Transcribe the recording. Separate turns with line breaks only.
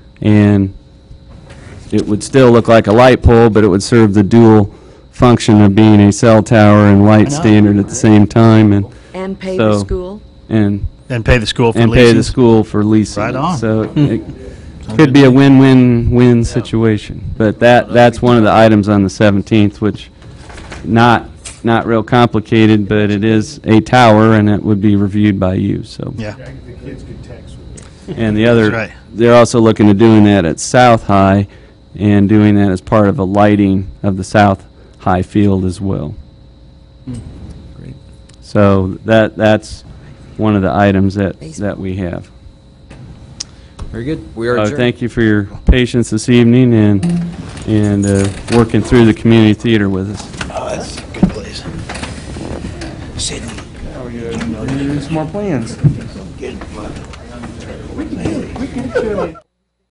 and it would still look like a light pole, but it would serve the dual function of being a cell tower and light
know.
standard at the same time, and,
And pay the
So-
school?
and,
And pay the school for
and pay the
leases.
school for leasing.
Right
it.
on. Hmm.
So it could be a win-win-win situation, but that, that's one of the items on the 17th, which not, not real complicated, but it is a tower, and it would be reviewed by you, so.
Yeah,
The kids could text with it.
And the other,
That's right.
they're also looking at doing that at South High and doing that as part of a lighting of the South High field as well.
Hmm.
So that, that's one of the items that, that we have.
Very good. We are
So
adjourned.
Uh, thank you for your patience this evening and, and uh, working through the community theater with us.
oh, that's a good place. Sitting.
Need some more plans.